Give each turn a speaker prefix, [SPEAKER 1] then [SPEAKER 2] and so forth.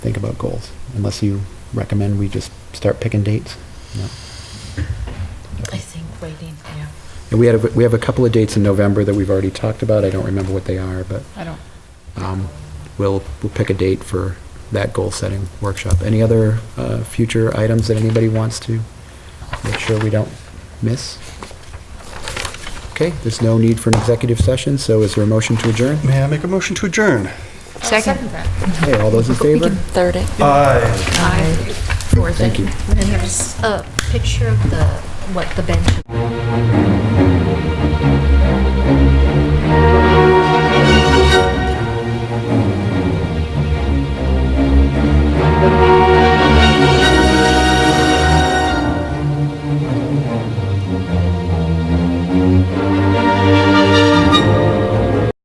[SPEAKER 1] think about goals, unless you recommend we just start picking dates. No.
[SPEAKER 2] I think waiting, yeah.
[SPEAKER 1] And we had, a- we have a couple of dates in November that we've already talked about. I don't remember what they are, but
[SPEAKER 3] I don't,
[SPEAKER 1] um, we'll, we'll pick a date for that goal-setting workshop. Any other uh, future items that anybody wants to make sure we don't miss? Okay, there's no need for an executive session, so is there a motion to adjourn?
[SPEAKER 4] May I make a motion to adjourn?
[SPEAKER 3] second.
[SPEAKER 1] Okay, all those in favor?
[SPEAKER 2] Third it.
[SPEAKER 4] Aye.
[SPEAKER 2] Fourth
[SPEAKER 1] Thank
[SPEAKER 2] it.
[SPEAKER 1] you.
[SPEAKER 2] Uh, And there's a picture of the, what the bench